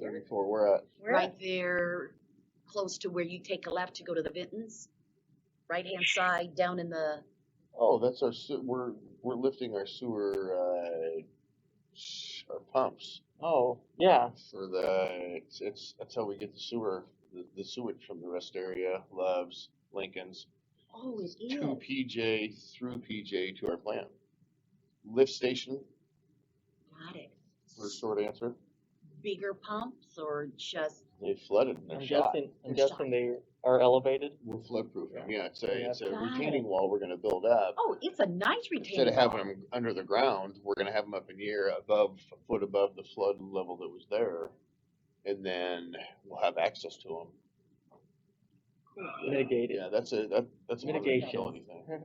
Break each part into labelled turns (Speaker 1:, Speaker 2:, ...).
Speaker 1: Thirty-four, where at?
Speaker 2: Where?
Speaker 3: right there, close to where you take a left to go to the Vintons. Right-hand side, down in the,
Speaker 1: Oh, that's our, se- we're, we're lifting our sewer, uh, sh- our pumps
Speaker 4: Oh, yeah,
Speaker 1: for the, it's, it's, that's how we get the sewer, the, the sewage from the rest area, Loves, Lincoln's,
Speaker 3: oh, it
Speaker 1: to
Speaker 3: is.
Speaker 1: PJ, through PJ to our plant. Lift station,
Speaker 3: Got it.
Speaker 1: for short answer,
Speaker 3: Bigger pumps or just,
Speaker 1: they flooded and
Speaker 4: I'm
Speaker 1: they're shot.
Speaker 4: guessing, I'm
Speaker 3: They're
Speaker 4: guessing they are elevated.
Speaker 1: We're flood proofing, yeah, it's a, it's a
Speaker 3: Got
Speaker 1: retaining wall we're gonna build up.
Speaker 3: oh, it's a nice
Speaker 1: Instead
Speaker 3: retaining
Speaker 1: of having
Speaker 3: wall.
Speaker 1: them under the ground, we're gonna have them up in the air above, a foot above the flood level that was there. And then we'll have access to them.
Speaker 4: Mitigated.
Speaker 1: Yeah, that's a, that, that's more than a
Speaker 4: Mitigation.
Speaker 1: utility thing.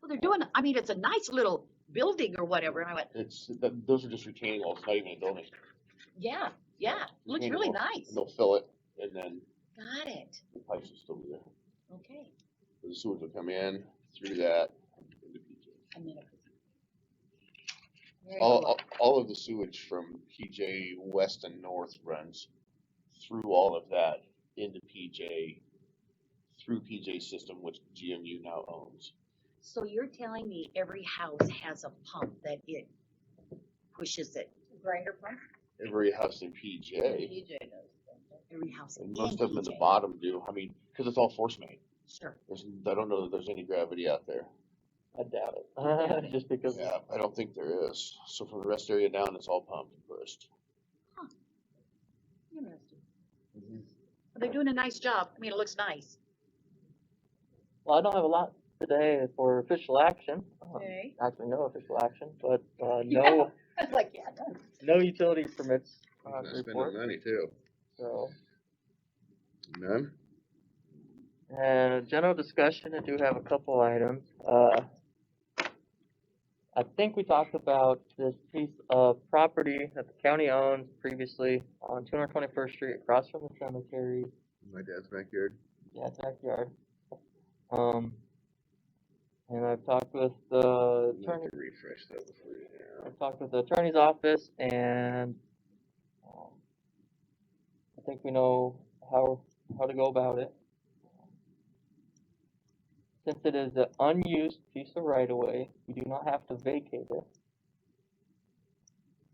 Speaker 3: Well, they're doing, I mean, it's a nice little building or whatever, and I went,
Speaker 1: It's, that, those are just retaining walls, not even a building.
Speaker 3: yeah, yeah, looks
Speaker 1: Retaining
Speaker 3: really
Speaker 1: wall.
Speaker 3: nice.
Speaker 1: They'll fill it and then
Speaker 3: Got it,
Speaker 1: the pipes will still be there.
Speaker 3: okay.
Speaker 1: The sewage will come in through that. into PJ.
Speaker 3: I'm gonna- Very
Speaker 1: All,
Speaker 3: cool.
Speaker 1: all, all of the sewage from PJ West and North runs through all of that into PJ, through PJ system, which GMU now owns.
Speaker 3: So you're telling me every house has a pump that it pushes it,
Speaker 2: Grinder pump?
Speaker 1: Every house in PJ,
Speaker 2: DJ knows. don't they?
Speaker 3: every house?
Speaker 1: and
Speaker 3: and
Speaker 1: most of them at the
Speaker 3: DJ.
Speaker 1: bottom do, I mean, cause it's all force main.
Speaker 3: Sure,
Speaker 1: There's, I don't know that there's any gravity out there.
Speaker 4: I doubt it. Just because
Speaker 1: Yeah, I don't think there is. So from the rest area down, it's all pumped and pushed.
Speaker 3: interesting. They're doing a nice job, I mean, it looks nice.
Speaker 4: Well, I don't have a lot today for official action. Uh,
Speaker 2: Okay.
Speaker 4: Actually, no official action, but uh,
Speaker 2: Yeah.
Speaker 4: no,
Speaker 2: I was like, yeah, done.
Speaker 4: no utility permits uh, to report.
Speaker 1: money too.
Speaker 4: So,
Speaker 1: None?
Speaker 4: and uh, general discussion. I do have a couple items. Uh, I think we talked about this piece of property that the county owns previously on 221st Street, across from the cemetery.
Speaker 1: My dad's backyard.
Speaker 4: Yeah, it's backyard. Um, and I've talked with the attorney,
Speaker 1: refresh that before you.
Speaker 4: I've talked with the attorney's office and, um, I think we know how, how to go about it. Since it is an unused piece of right of way, you do not have to vacate it.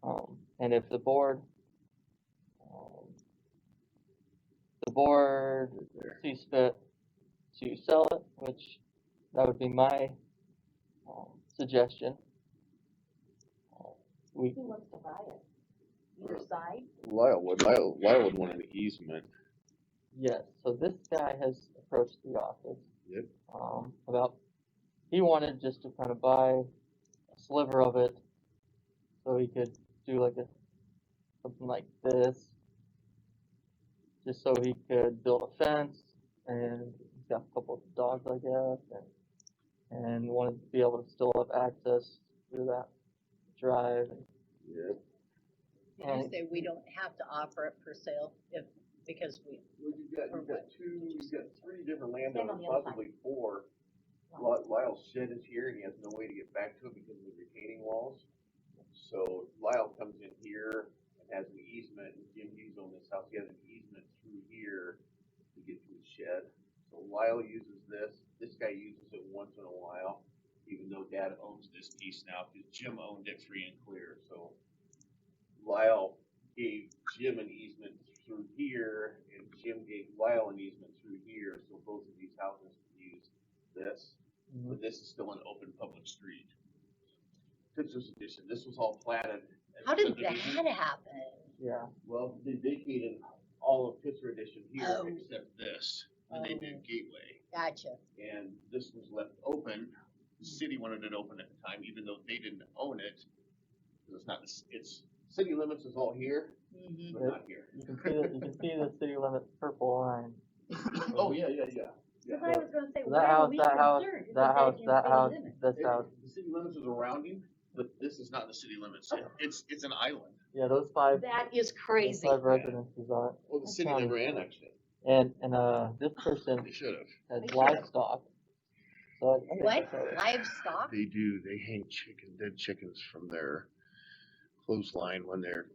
Speaker 4: Um, and if the board, um, the board sees fit to sell it, which that would be my, um, suggestion. Uh, We,
Speaker 3: Who wants to buy it? Either side?
Speaker 1: Lyle would, Lyle, Lyle would want an easement.
Speaker 4: Yes, so this guy has approached the office.
Speaker 1: Yep.
Speaker 4: Um, about, he wanted just to kind of buy a sliver of it, so he could do like a, something like this. Just so he could build a fence, and he's got a couple of dogs, I guess, and, and wanted to be able to still have access through that drive.
Speaker 1: Yep.
Speaker 2: Did you
Speaker 4: And-
Speaker 2: say we don't have to offer it for sale if, because we,
Speaker 5: Well, you've got, you've got two, you've got three different
Speaker 3: on
Speaker 5: landowners,
Speaker 3: the other side.
Speaker 5: possibly four. Ly- Lyle's shed is here and he has no way to get back to it because of the retaining walls. So Lyle comes in here and has an easement, and Jim Hughes on this house, he has an easement through here to get to his shed. So Lyle uses this, this guy uses it once in a while, even though dad owns this piece now, because Jim owned it free and clear, so. Lyle gave Jim an easement through here, and Jim gave Lyle an easement through here, so both of these houses can use this, but this is still an open public street. This was addition, this was all platted. as
Speaker 2: how did that
Speaker 5: subdivision.
Speaker 2: happen?
Speaker 4: Yeah.
Speaker 5: Well, they vacated all of Pittsburgh Edition here,
Speaker 2: Oh.
Speaker 5: except this, and they
Speaker 2: Oh.
Speaker 5: did Gateway,
Speaker 2: Gotcha.
Speaker 5: and this was left open. The city wanted it open at the time, even though they didn't own it, 'cause it's not, the c- it's, city limits is all here,
Speaker 2: Mhm.
Speaker 5: but not here.
Speaker 4: You can see the, you can see the city limit purple line. Mm-hmm.
Speaker 5: Oh, yeah, yeah, yeah. Yeah.
Speaker 2: Cause I was gonna say,
Speaker 4: That
Speaker 2: why are
Speaker 4: house,
Speaker 2: we
Speaker 4: that house,
Speaker 2: concerned? It's
Speaker 4: That
Speaker 2: like
Speaker 4: house,
Speaker 2: in
Speaker 4: that
Speaker 2: city
Speaker 4: house,
Speaker 2: limits.
Speaker 4: this
Speaker 5: It-
Speaker 4: house,
Speaker 5: The city limits is around you, but this is not the city limits.
Speaker 1: Oh.
Speaker 5: It- It's, it's an island.
Speaker 4: yeah, those five,
Speaker 3: That is
Speaker 4: those
Speaker 3: crazy.
Speaker 4: five residences on it.
Speaker 1: Well,
Speaker 4: the city never
Speaker 1: annexed it.
Speaker 4: And, and, uh, this person
Speaker 1: They should have.
Speaker 4: has
Speaker 3: They should've.
Speaker 4: livestock. So I- I think
Speaker 2: What?
Speaker 4: that's right.
Speaker 2: Livestock?
Speaker 1: They do, they hang chicken, dead chickens from their clothesline when they're